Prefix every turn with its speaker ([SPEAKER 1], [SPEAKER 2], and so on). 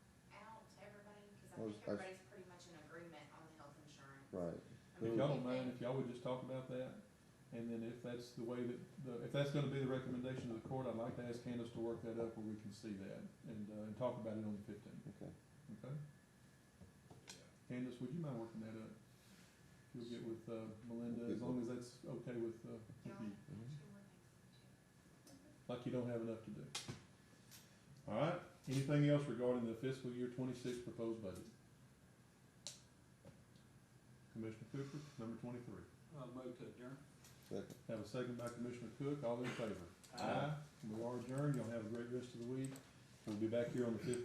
[SPEAKER 1] I
[SPEAKER 2] Well,
[SPEAKER 1] think
[SPEAKER 2] that's-
[SPEAKER 1] everybody's pretty much in agreement on the health insurance.
[SPEAKER 2] Right,
[SPEAKER 1] I
[SPEAKER 3] If
[SPEAKER 1] mean,
[SPEAKER 3] y'all
[SPEAKER 1] if
[SPEAKER 3] don't mind,
[SPEAKER 1] they-
[SPEAKER 3] if y'all would just talk about that, and then if that's the way that, the- if that's gonna be the recommendation of the court, I'd like to ask Candace to work that up where we can see that, and, uh, and talk about it on the fifteenth,
[SPEAKER 2] okay.
[SPEAKER 3] okay? Candace, would you mind working that up? If You'll get with, uh, Melinda, as long as that's okay with, uh, with you,
[SPEAKER 2] Mm-hmm.
[SPEAKER 1] She would like to.
[SPEAKER 3] like you don't have enough to do. All right, anything else regarding the fiscal year twenty-six proposed budget? Commissioner Cooper, number twenty-three.
[SPEAKER 4] I'll move to adjourn.
[SPEAKER 2] Second.
[SPEAKER 3] Have a second by Commissioner Cook, all in favor?
[SPEAKER 4] Aye.
[SPEAKER 3] We are adjourned, y'all have a great rest of the week, we'll be back here on the fifteenth.